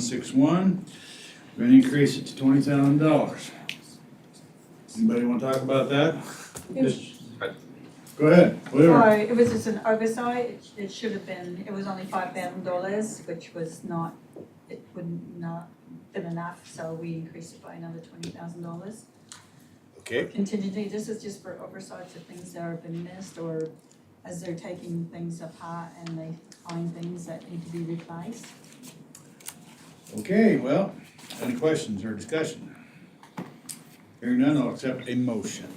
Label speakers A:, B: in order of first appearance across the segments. A: Six one, we're gonna increase it to twenty thousand dollars. Anybody wanna talk about that? Just- Go ahead, whatever.
B: Sorry, it was just an oversight, It- it should have been, it was only five thousand dollars, which was not, it wouldn't not been enough, so we increased it by another twenty thousand dollars.
C: Okay.
B: Contingency, this is just for oversights of things that have been missed, or as they're taking things apart and they find things that need to be replaced.
A: Okay, well, any questions or discussion? Hearing none, I'll accept a motion.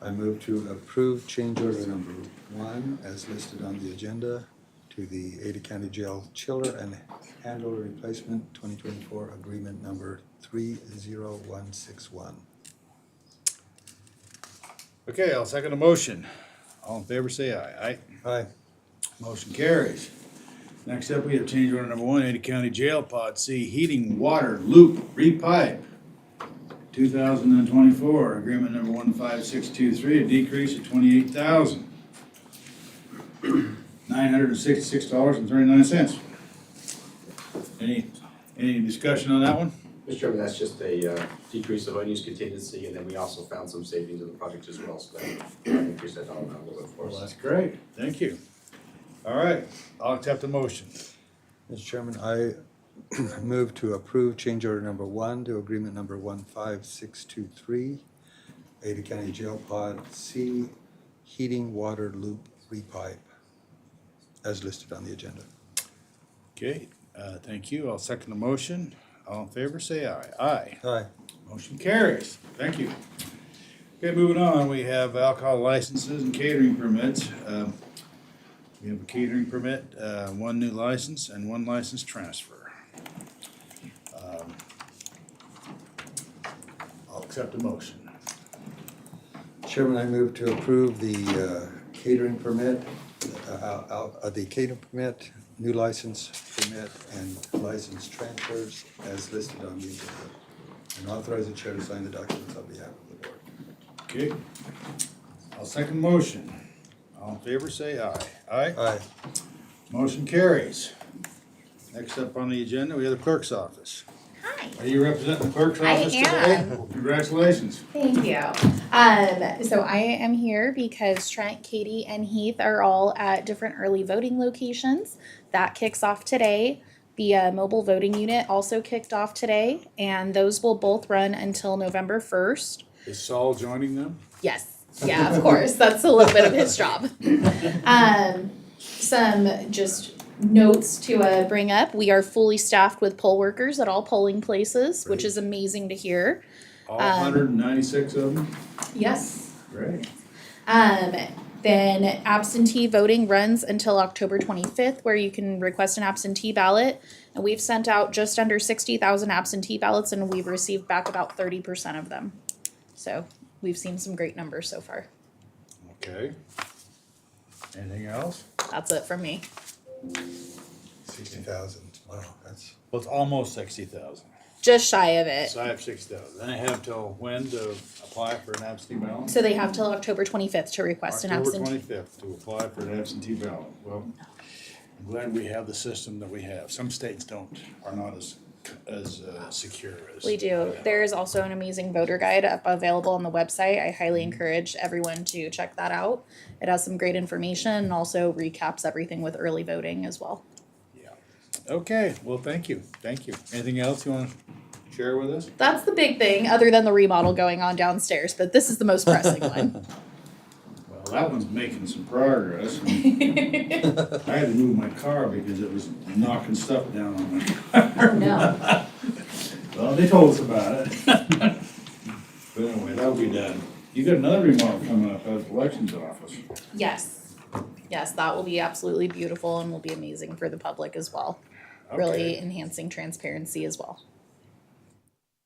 D: I move to approve change order number one as listed on the agenda to the Ada County Jail Chiller and Handle Replacement twenty twenty-four agreement number three zero one six one.
A: Okay, I'll second the motion. All in favor, say aye. Aye.
D: Aye.
A: Motion carries. Next up, we have change order number one, Ada County Jail Pod C Heating Water Loop Repipe. Two thousand and twenty-four, agreement number one five six two three, a decrease of twenty-eight thousand. Nine hundred and sixty-six dollars and thirty-nine cents. Any, any discussion on that one?
E: Mr. Chairman, that's just a uh, decrease of unused contingency, and then we also found some savings in the project as well, so that increased that dollar amount a little bit for us.
A: that's great. Thank you. All right, I'll accept the motion.
D: Mr. Chairman, I move to approve change order number one to agreement number one five six two three, Ada County Jail Pod C Heating Water Loop Repipe as listed on the agenda.
A: Okay, uh, thank you. I'll second the motion. All in favor, say aye. Aye.
D: Aye.
A: Motion carries. Thank you. Okay, moving on, we have alcohol licenses and catering permits. Um, We have a catering permit, uh, one new license and one license transfer. Um, I'll accept the motion.
D: Chairman, I move to approve the uh, catering permit, uh, uh, uh, the catering permit, new license permit, and license transfers as listed on the agenda. And authorize the chair to sign the documents on behalf of the board.
A: Okay. I'll second the motion. All in favor, say aye. Aye?
D: Aye.
A: Motion carries. Next up on the agenda, we have the clerk's office.
F: Hi.
A: Are you representing the clerk's
F: I
A: office today?
F: am.
A: Congratulations.
F: Thank you. Um, so I am here because Trent, Katie, and Heath are all at different early voting locations. That kicks off today. The uh, mobile voting unit also kicked off today, and those will both run until November 1st.
A: Is Saul joining them?
F: Yes. Yeah, of course. That's a little bit of his job. Um, some just notes to uh, bring up. We are fully staffed with poll workers at all polling places, which is amazing to hear.
A: All
F: Um,
A: hundred and ninety-six of them?
F: Yes.
A: Great.
F: Um, then absentee voting runs until October twenty-fifth, where you can request an absentee ballot. And we've sent out just under sixty thousand absentee ballots and we've received back about thirty percent of them. So we've seen some great numbers so far.
A: Okay. Anything else?
F: That's it from me.
D: Sixty thousand, wow, that's,
A: Well, it's almost sixty thousand.
F: Just shy of it.
A: So I have sixty thousand. And I have till when to apply for an absentee ballot?
F: So they have till October twenty-fifth to request an
A: October
F: absentee.
A: twenty-fifth to apply for an absentee ballot. Well, I'm glad we have the system that we have. Some states don't, are not as, as, uh, secure as.
F: We do. There is also an amazing voter guide up available on the website. I highly encourage everyone to check that out. It has some great information and also recaps everything with early voting as well.
A: Yeah. Okay, well, thank you, thank you. Anything else you wanna share with us?
F: That's the big thing, other than the remodel going on downstairs, but this is the most pressing one.
A: Well, that one's making some progress. I had to move my car because it was knocking stuff down on me.
F: No.
A: Well, they told us about it. But anyway, that'll be done. You got another remark coming up at the elections office.
F: Yes. Yes, that will be absolutely beautiful and will be amazing for the public as well. Really
A: Okay.
F: enhancing transparency as well.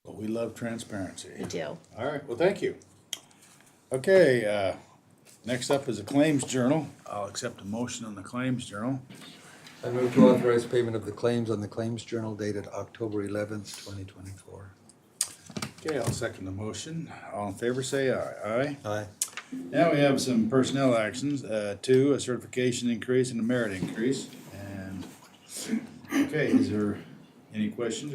A: But we love transparency.
F: We do.
A: All right, well, thank you. Okay, uh, next up is the claims journal. I'll accept a motion on the claims journal.
D: I move to authorize payment of the claims on the claims journal dated October eleventh, twenty twenty-four.
A: Okay, I'll second the motion. All in favor, say aye. Aye?
D: Aye.
A: Now we have some personnel actions, uh, two, a certification increase and a merit increase, and, okay, is there Any questions or